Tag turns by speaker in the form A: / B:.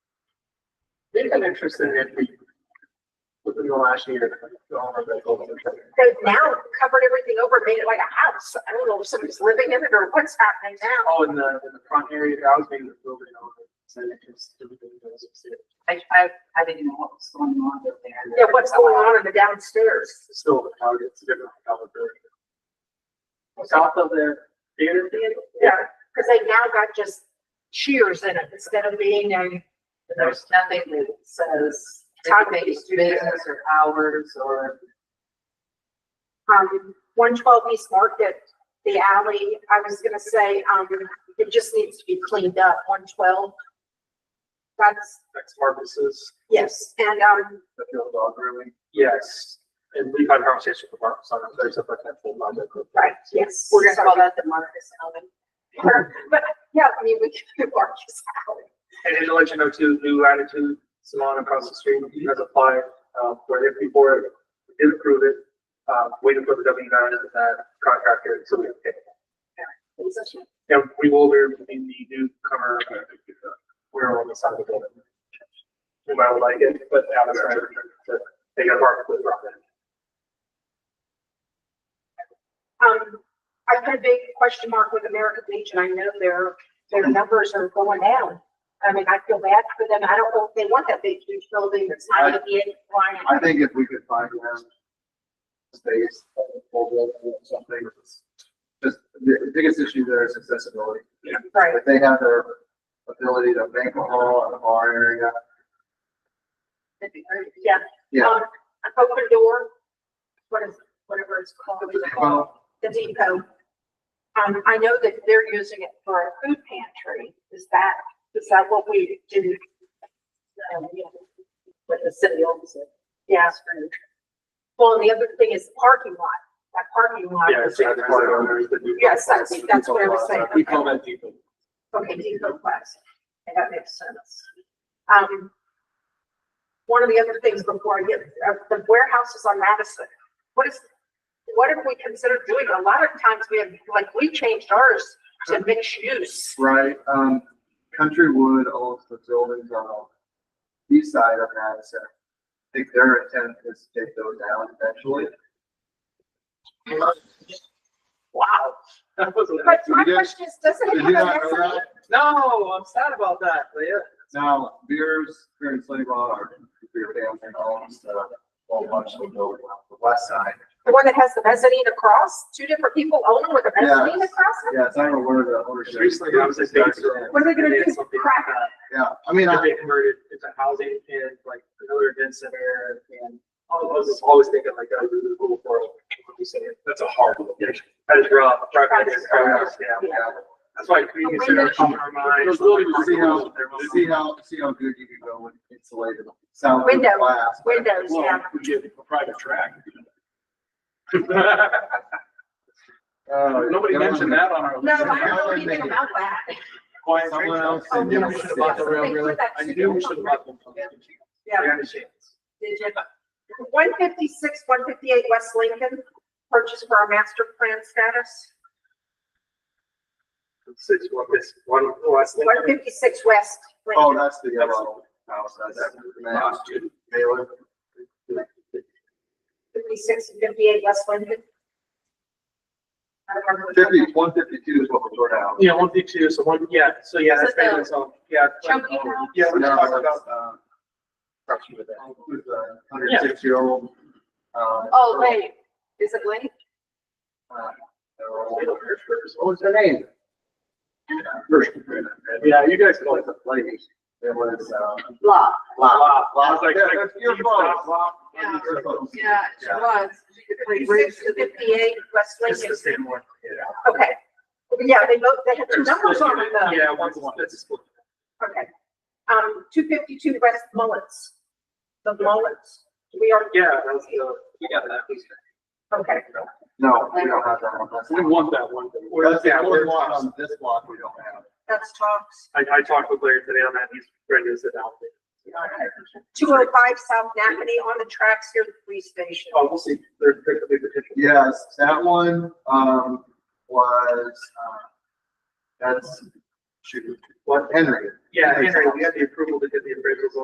A: they've been interested in it within the last year. Oh, all of that goes into it.
B: They've now covered everything over, and made it like a house. I don't know if somebody's living in it or what's happening now.
A: All in the, in the front area, I was being building on it. So it just-
C: I, I, I didn't know what was going on over there.
B: Yeah, what's going on in the downstairs?
A: It's Still, a target, it's a different color. South of the theater.
B: Yeah, because they now got just Cheers in it instead of being a,
C: There's nothing that says
B: Talk to
C: it's
B: you.
C: business or hours or.
B: um, one twelve East Market, the alley. I was gonna say, um, it just needs to be cleaned up, one twelve. That's,
A: Next purposes,
B: yes, and, um,
A: the field dog grooming. Yes, and we've had a conversation with Mark, so I'm very separate from that project.
B: right, yes.
C: We're gonna call that the Marcus Alvin.
B: But, yeah, I mean, we could do Marcus Alley.
A: And and to let you know too, New Attitude Salon across the street, he has applied, uh, for it before, it did approve it. Uh, waiting for the W nine and that contractor, so we can pay. And we will be in the new cover, uh, we're on the side of the building. We might like it, but out of our, they got marked with rock.
B: Um, I put a big question mark with American Legion. I know their, their numbers are going down. I mean, I feel bad for them. I don't know if they want that big huge building that's not gonna be in compliance.
D: I think if we could find around space, or something, just the biggest issue there is accessibility.
B: Right,
D: If they have their ability to bank a hall in a bar area,
C: That'd be great.
B: yeah.
D: Yeah.
B: Um, an Open door, what is, whatever it's called,
D: well,
B: the depot. Um, I know that they're using it for a food pantry. Is that, is that what we do? Um,
C: But the city owns it.
B: Yeah. Well, and the other thing is the parking lot, that parking lot.
A: Yeah, it's like the corridor, there's the new-
B: Yes, that's, that's what I was saying.
A: We call that depot.
B: Okay, depot class. And that makes sense. Um, one of the other things before I get, uh, the warehouses on Madison, what is, what have we considered doing? A lot of times we have, like, we changed ours to mixed use.
D: Right, um, Countrywood owns the buildings on the east side of Madison. I think their intent is to take those down eventually.
B: Wow.
A: That was a-
B: But my
D: You did-
B: question is, does
D: Did
B: it
D: you
B: have
D: not
B: a
D: know
B: mezzanine?
D: that?
A: No, I'm sad about that, but yeah.
D: Now, beers, beer and slave are, beer family homes, uh, whole bunch of buildings on the west side.
B: The one that has the mezzanine across? Two different people own it with a mezzanine
D: Yes.
B: across it?
D: Yeah, it's not even where the ownership.
A: Recently, I was at Bakersfield.
B: What are they gonna do?
A: Something-
B: Crack it?
D: Yeah, I mean,
A: that
D: I,
A: they converted into housing and like another event center and all of us always thinking like, oh, this is a little world. What we say, That's a hard one. That is rough. Right, that is hard, yeah.
D: yeah,
A: That's why community centers come to our mind.
D: Those buildings, see how, see how, see how good you can go with insulated sound.
B: Window.
D: glass.
B: Windows, yeah.
A: we get a private track.
D: Oh,
A: Uh, Nobody
D: yeah.
A: mentioned that on our.
B: No,
A: list.
B: I don't know anything about that.
A: Quiet
D: Someone
A: train.
D: else
A: I
B: said
A: knew
B: yes.
A: we should have bought the rail, really. I knew we should have bought them.
B: Yeah.
A: We had a chance.
B: One fifty-six, one fifty-eight West Lincoln, purchase for our master plan status.
A: Six, one, this, one, last thing.
B: One fifty-six West. Lincoln.
D: Oh, that's the yellow house, that's
A: Last
D: that.
A: year.
D: Baylor.
B: Fifty-six and fifty-eight West Lincoln. I don't remember. which one.
D: Fifty, one fifty-two is what we're doing now.
A: Yeah, one D two, so one, yeah, so yeah, that's
C: Is it the
A: basically, so, yeah.
C: Chunky house?
A: Yeah, we
D: Now,
A: just talked about.
D: uh, who's a Hundred uh, six year old.
C: Oh, wait, is it Link?
D: uh, What was her name? First.
A: Yeah, you guys call
D: Like
A: it.
D: the lady, it was, uh,
C: Blah.
A: Wow, wow, it's like-
D: Yeah,
A: like,
D: that's your
A: you
D: fault.
A: stop, wow.
C: Yeah.
D: Your fault.
C: Yeah, she
D: Yeah.
C: was. She could play bridge
B: 56
C: to
B: and
C: the.
B: 58 West
A: It's
B: Lincoln,
A: the same one.
B: okay. Yeah, they both, they have two
A: There's-
B: numbers on them though.
A: Yeah, one's one, that's a split.
B: Okay. Um, two fifty-two West Mullins. The Mullins, we are.
A: Yeah, that was the, we got that.
B: Okay.
D: No, we don't have that one. That's-
A: We want that one.
D: Well, That's the
A: Yeah,
D: only
A: we're-
D: one on this block we don't have.
B: That's talks.
A: I, I talked with Larry today on that, he's ready to sit down.
B: Two oh five South Napany on the tracks near the police station.
A: Oh, we'll see, there's, there could be potential.
D: Yes, that one, um, was, uh, that's, shoot, what, Henry?
A: Yeah, Henry, we had the approval to get the